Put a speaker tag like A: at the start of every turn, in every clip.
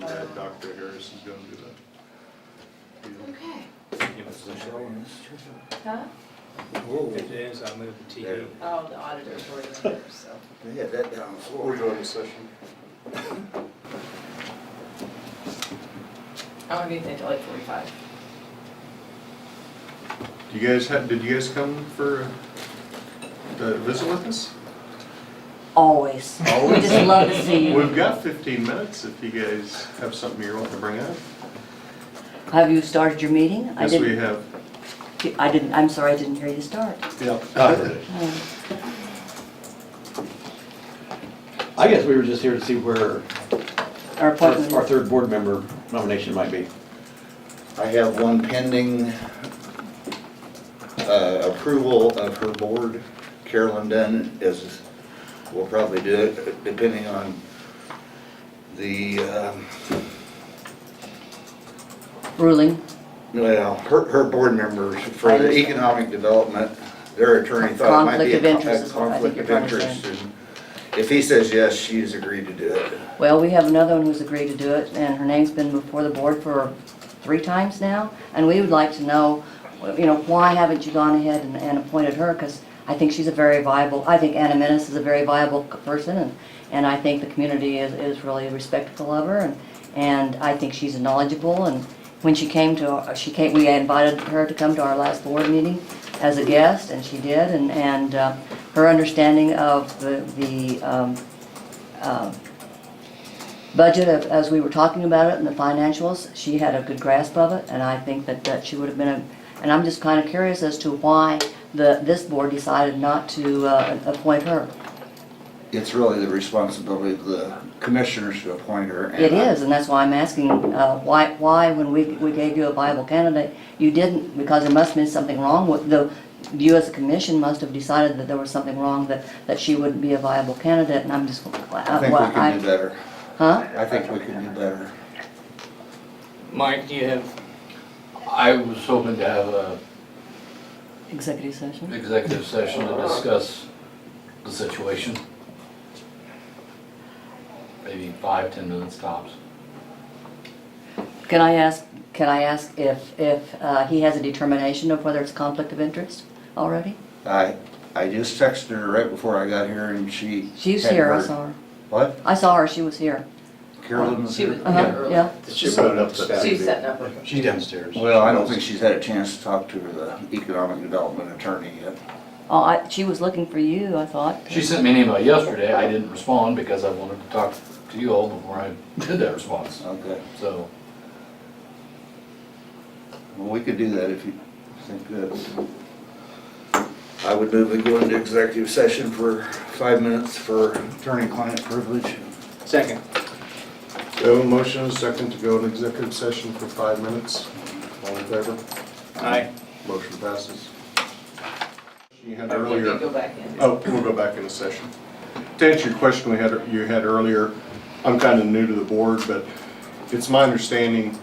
A: that Dr. Harris is gonna do that. deal.
B: Okay.
C: Give us a show.
B: Huh?
C: If it is, I move the TV.
B: Oh, the auditor's already in there, so.
D: They had that down on the
A: We're
D: floor.
A: going to session.
B: I won't be there till like forty-five.
A: Do you guys have, did you guys come for, uh, to visit with us?
E: Always. We
A: Always.
E: just love to see you.
A: We've got fifteen minutes if you guys have something you're wanting to bring up.
E: Have you started your meeting? I
A: Yes, we
E: didn't.
A: have.
E: I didn't, I'm sorry, I didn't hear you start.
A: Uh,
F: Yeah,
E: Oh,
F: I guess we were just here to see where
E: Our
F: our
E: appointment.
F: our third board member nomination might be.
D: I have one pending uh, approval of her board. Carolyn Dunn is, will probably do it depending on the, um,
E: Ruling.
D: well, her, her board members for the economic development, their attorney thought it might be a
E: Conflict of interest
D: con- a
E: is what I
D: conflict
E: think you're
D: of
E: trying to
D: interest. and If he says yes, she's agreed to do it.
E: Well, we have another one who's agreed to do it, and her name's been before the board for three times now. And we would like to know, you know, why haven't you gone ahead and, and appointed her? Because I think she's a very viable, I think Anna Menace is a very viable c- person, and, and I think the community is, is really respectful of her, and, and I think she's knowledgeable, and when she came to, our- she came, we invited her to come to our last board meeting as a guest, and she did, and, and uh, her understanding of the, the, um, um, budget of- as we were talking about it and the financials, she had a good grasp of it, and I think that, that she would have been a, and I'm just kind of curious as to why the, this board decided not to uh, appoint her.
D: It's really the responsibility of the commissioners to appoint her. and
E: It
D: I-
E: is, and that's why I'm asking, uh, why, why when we, we gave you a viable candidate, you didn't, because there must have been something wrong with, the, you as a commission must have decided that there was something wrong, that, that she wouldn't be a viable candidate, and I'm just, uh,
D: I think we can do
E: I,
D: better.
E: huh?
D: I think we can do better.
C: Mike, do you have,
G: I was hoping to have a
E: Executive session?
G: executive session to discuss the situation. Maybe five, ten minutes tops.
E: Can I ask, can I ask if, if uh, he has a determination of whether it's conflict of interest already?
D: I, I just texted her right before I got here and she.
E: She's
D: hadn't
E: here, I
D: heard.
E: saw her.
D: What?
E: I saw her, she was here.
D: Carolyn's
B: She was
D: here?
E: Uh-huh,
B: there early.
E: yeah.
A: She put it up to-
B: She's setting up. her-
C: she's downstairs.
D: Well, I don't think she's had a chance to talk to the economic development attorney yet.
E: Oh, I, she was looking for you, I thought.
G: She sent me an email yesterday, I didn't respond because I wanted to talk to you all before I did that response,
D: Okay,
G: so.
D: well, we could do that if you think that. I would move we go into executive session for five minutes for attorney-client privilege.
C: Second.
A: We have a motion, and a second to go into executive session for five minutes. All in favor?
C: Aye.
A: Motion passes. You had
B: Or we
A: earlier.
B: could go back in.
A: Oh, we'll go back into session. To answer your question we had, you had earlier, I'm kind of new to the board, but it's my understanding,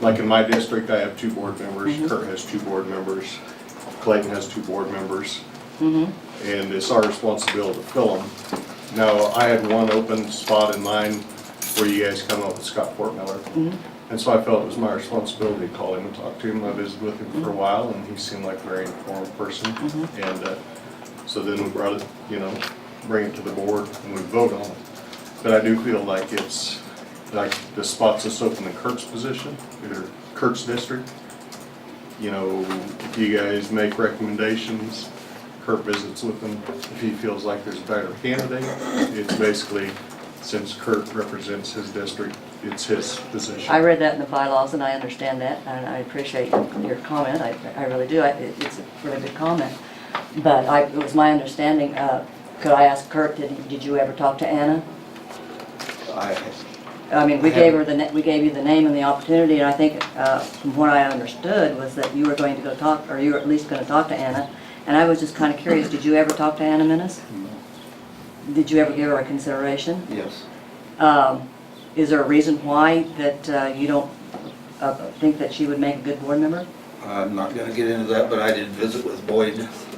A: like in my district, I have two board members, Kurt has two board members, Clayton has two board members,
E: Mm-hmm.
A: and it's our responsibility to fill them. Now, I had one open spot in mind where you guys come up with Scott Fortmiller. And so I felt it was my responsibility to call him and talk to him. I visited with him for a while and he seemed like a very informed person. And uh, so then we brought it, you know, bring it to the board and we vote on it. But I do feel like it's, like the spots that's open in Kurt's position, or Kurt's district. You know, if you guys make recommendations, Kurt visits with them. If he feels like there's a better candidate, it's basically, since Kurt represents his district, it's his position.
E: I read that in the bylaws and I understand that and I appreciate your comment, I, I really do, I- it- it's a really good comment. But I, it was my understanding, uh, could I ask Kurt, did, did you ever talk to Anna?
D: I,
E: I mean, we gave her the, na- we gave you the name and the opportunity, and I think, uh, from what I understood, was that you were going to go talk, or you were at least gonna talk to Anna. And I was just kinda curious, did you ever talk to Anna Menace? Did you ever give her a consideration?
D: yes,
E: Um, is there a reason why that, uh, you don't, uh, think that she would make a good board member?
D: I'm not gonna get into that, but I did visit with Boyd